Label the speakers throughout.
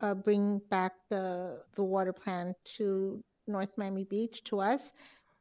Speaker 1: uh, bring back the, the water plan to North Miami Beach to us.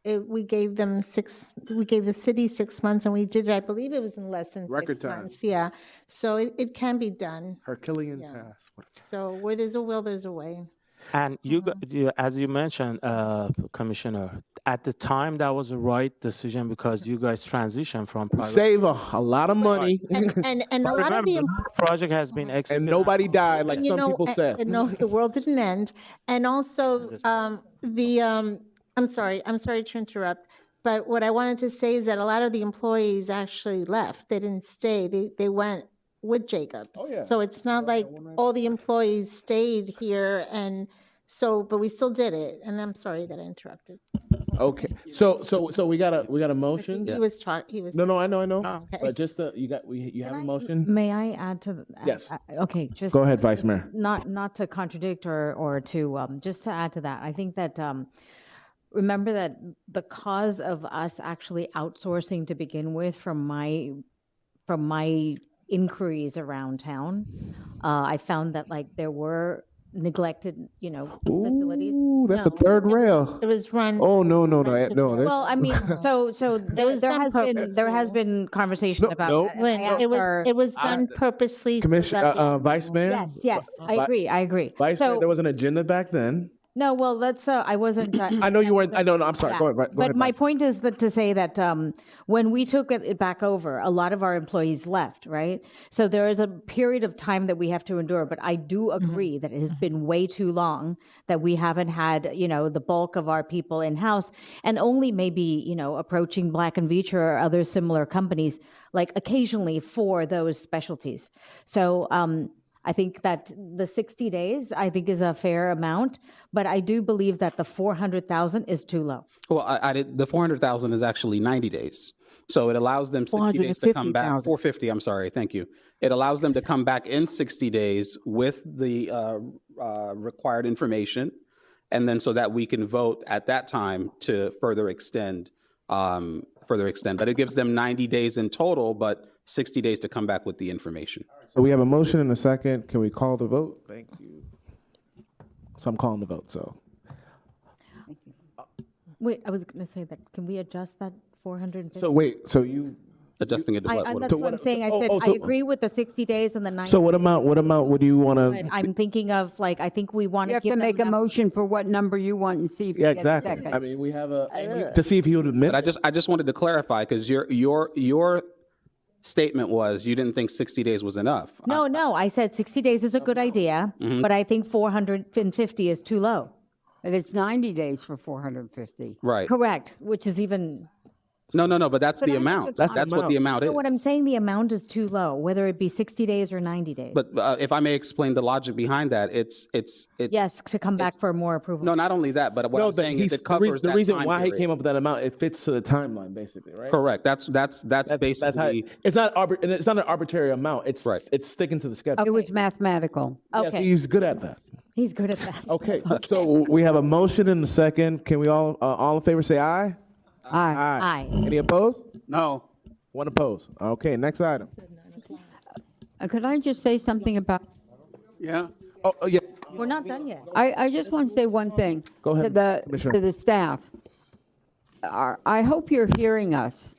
Speaker 1: It, we gave them six, we gave the city six months and we did, it. I believe it was in less than
Speaker 2: Record
Speaker 1: six
Speaker 2: time.
Speaker 1: months. Yeah, so it, it can be done.
Speaker 2: Herculean
Speaker 1: Yeah.
Speaker 2: task. What a-
Speaker 1: So where there's a will, there's a way.
Speaker 3: And you, go- you as you mentioned, uh, Commissioner, at the time that was the right decision because you guys transitioned from private.
Speaker 2: Save a, a lot of money
Speaker 1: And, and, and a lot of
Speaker 3: Remember,
Speaker 1: the.
Speaker 3: this project has been
Speaker 2: and
Speaker 3: executed.
Speaker 2: nobody died like
Speaker 1: And you
Speaker 2: some
Speaker 1: know,
Speaker 2: people
Speaker 1: a-
Speaker 2: said.
Speaker 1: and no, the world didn't end. And also, um, the, um, I'm sorry, I'm sorry to interrupt, but what I wanted to say is that a lot of the employees actually left. They didn't stay. They, they went with Jacobs.
Speaker 2: yeah.
Speaker 1: So it's not like all the employees stayed here and so, but we still did it. And I'm sorry that I interrupted.
Speaker 2: Okay. So so so we got a we got a
Speaker 1: I think
Speaker 2: motion.
Speaker 1: He was talking, he was.
Speaker 2: No, no, I know, I know.
Speaker 3: No.
Speaker 2: But just uh, you got we you have a motion.
Speaker 4: May I add to? th-
Speaker 2: Yes.
Speaker 4: uh, Okay, just.
Speaker 2: Go ahead, Vice Mayor.
Speaker 4: Not, not to contradict or, or to, um, just to add to that, I think that, um, remember that the cause of us actually outsourcing to begin with from my, from my inquiries around town, uh, I found that like there were neglected, you know, facilities.
Speaker 2: Ooh, that's a
Speaker 4: No.
Speaker 2: third rail.
Speaker 1: It was run.
Speaker 2: Oh no no no I-
Speaker 1: Friendship
Speaker 2: no.
Speaker 1: Hill.
Speaker 2: That's,
Speaker 4: Well, I mean, so, so there
Speaker 1: was
Speaker 4: there
Speaker 1: done
Speaker 4: has been, there has
Speaker 1: purposely.
Speaker 4: been conversation
Speaker 2: No,
Speaker 4: about.
Speaker 2: no.
Speaker 4: that, and I
Speaker 1: Lynn, It
Speaker 4: asked uh, our-
Speaker 1: was, it was done purposely. so
Speaker 2: Commission uh,
Speaker 1: that the-
Speaker 2: uh, Vice Mayor.
Speaker 4: Yes, yes, I
Speaker 2: Vi-
Speaker 4: agree, I agree.
Speaker 2: Vice Mayor,
Speaker 4: So,
Speaker 2: there was an agenda back then.
Speaker 4: no, well, let's, uh, I wasn't. uh,
Speaker 2: I know you weren't. I know. No, I'm sorry.
Speaker 4: Yeah.
Speaker 2: Go ahead. Right, go
Speaker 4: but
Speaker 2: ahead,
Speaker 4: my
Speaker 2: Vice-
Speaker 4: point is that to say that um, when we took it it back over, a lot of our employees left, right? So there is a period of time that we have to endure. But I do agree that it has been way too long that we haven't had, you know, the bulk of our people in house, and only maybe you know approaching Black and Veatch or other similar companies like occasionally for those specialties. So. Um, I think that the 60 days I think is a fair amount, but I do believe that the 400,000 is too low.
Speaker 5: Well, I, I did, the four hundred thousand is actually ninety days. So it allows them sixty days to come back,
Speaker 6: 450,000.
Speaker 5: four fifty, I'm sorry, thank you. It allows them to come back in sixty days with the, uh, uh, required information. And then so that we can vote at that time to further extend, um, further extend. But it gives them ninety days in total, but sixty days to come back with the information.
Speaker 2: So we have a motion and a second. Can we call the vote? Thank you. So I'm calling the vote. So
Speaker 4: Wait, I was going to say that, can we adjust that 450?
Speaker 2: so wait. So you.
Speaker 5: Adjusting it to
Speaker 4: I, I-
Speaker 5: what,
Speaker 4: that's
Speaker 5: what-
Speaker 4: what I'm saying, I
Speaker 2: oh,
Speaker 4: said,
Speaker 2: oh,
Speaker 4: I
Speaker 2: to-
Speaker 4: agree with the 60 days and the 90,
Speaker 2: So what amount? What amount would you want
Speaker 4: but
Speaker 2: to?
Speaker 4: I'm thinking of, like, I think we want
Speaker 6: You
Speaker 4: to
Speaker 6: have
Speaker 4: give
Speaker 6: to make a
Speaker 4: them, enough-
Speaker 6: motion for what number you want and see if you
Speaker 2: Yeah,
Speaker 6: get a
Speaker 2: exactly. I
Speaker 6: second.
Speaker 2: mean, we have a to see if he would admit.
Speaker 5: But I just, I just wanted to clarify, because your, your, your statement was you didn't think sixty days was enough.
Speaker 4: no, no, I said 60 days is a good idea,
Speaker 2: Mm-hmm.
Speaker 4: but I think 450 is too low.
Speaker 6: But it's 90 days for 450.
Speaker 5: Right.
Speaker 4: Correct, which is even,
Speaker 5: No, no, no, but that's the amount. That's, what the amount is.
Speaker 4: what I'm saying, the amount is too low, whether it be 60 days or 90 days.
Speaker 5: But uh, if I may explain the logic behind that, it's, it's, it's.
Speaker 4: Yes, to come back for more approval.
Speaker 5: No, not only that, but what
Speaker 2: No,
Speaker 5: I'm
Speaker 2: the-
Speaker 5: saying
Speaker 2: he's-
Speaker 5: is
Speaker 2: the
Speaker 5: it covers
Speaker 2: reason- the
Speaker 5: that
Speaker 2: reason
Speaker 5: time
Speaker 2: why he
Speaker 5: period.
Speaker 2: came up with that amount. It fits to the timeline, basically, right?
Speaker 5: Correct. That's, that's, that's
Speaker 2: That's how
Speaker 5: basically,
Speaker 2: it's not. arbit- and It's not an arbitrary amount. It's
Speaker 5: Right.
Speaker 2: It's sticking to the schedule.
Speaker 6: It was mathematical.
Speaker 2: Yes,
Speaker 4: Okay,
Speaker 2: he's good at that.
Speaker 4: he's good at that.
Speaker 2: Okay, so we have a motion and a second. Can we all, uh, all in favor, say aye?
Speaker 6: Aye.
Speaker 4: Aye.
Speaker 2: Any opposed?
Speaker 5: no.
Speaker 2: One opposed. Okay, next item.
Speaker 6: Uh, Could I just say something about,
Speaker 5: Yeah.
Speaker 2: Oh, oh, yes.
Speaker 4: We're not done yet.
Speaker 6: I, I just want to say one thing.
Speaker 2: Go ahead,
Speaker 6: To the,
Speaker 2: Commissioner.
Speaker 6: to the staff. Our- I hope you're hearing us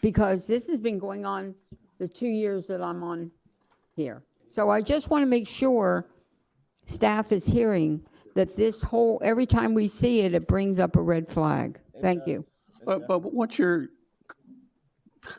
Speaker 6: because this has been going on the two years that I'm on here. So I just want to make sure staff is hearing that this whole, every time we see it, it brings up a red flag. Thank you.
Speaker 7: But, but what you're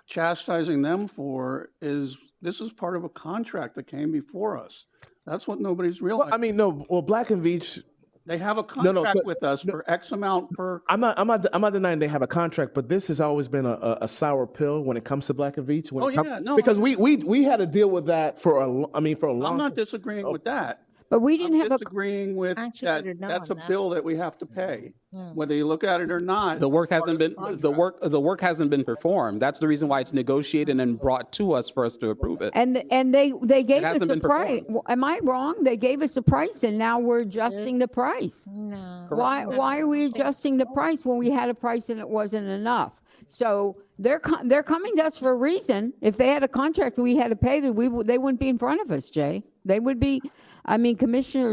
Speaker 7: chastising them for is, this is part of a contract that came before us. That's what nobody's
Speaker 2: Well, I
Speaker 7: realizing.
Speaker 2: mean, no. Well, Black and Beach.
Speaker 7: They have a
Speaker 2: no, Oh.
Speaker 7: contract
Speaker 2: but-
Speaker 7: with us for X amount per,
Speaker 2: I'm not. I'm not. I'm not denying they have a contract, but this has always been a, a, a sour pill when it comes to Black and Beach. When
Speaker 7: Oh,
Speaker 2: it come-
Speaker 7: yeah, no,
Speaker 2: because
Speaker 7: I-
Speaker 2: we we we had to deal with that for a. lo- I mean, for a long.
Speaker 7: I'm not disagreeing with that.
Speaker 6: But we
Speaker 7: I'm
Speaker 6: didn't have a.
Speaker 7: disagreeing with
Speaker 1: Actually, I
Speaker 7: that,
Speaker 1: don't know
Speaker 7: that's a
Speaker 1: on that.
Speaker 7: bill that we have to pay, whether you look at it or not.
Speaker 5: The work hasn't been, the work, the work hasn't been performed. That's the reason why it's negotiated and brought to us for us to approve it.
Speaker 6: And, th- and they, they gave us
Speaker 5: hasn't
Speaker 6: the
Speaker 5: been
Speaker 6: price.
Speaker 5: performed.
Speaker 6: Am I wrong? They gave us the price and now we're adjusting the price.
Speaker 2: uh,
Speaker 1: No.
Speaker 6: Why, why are we adjusting the price when we had a price and it wasn't enough? So they're, co- they're coming to us for a reason. If they had a contract we had to pay, that we, w- they wouldn't be in front of us, Jay. They would be, I mean, Commissioner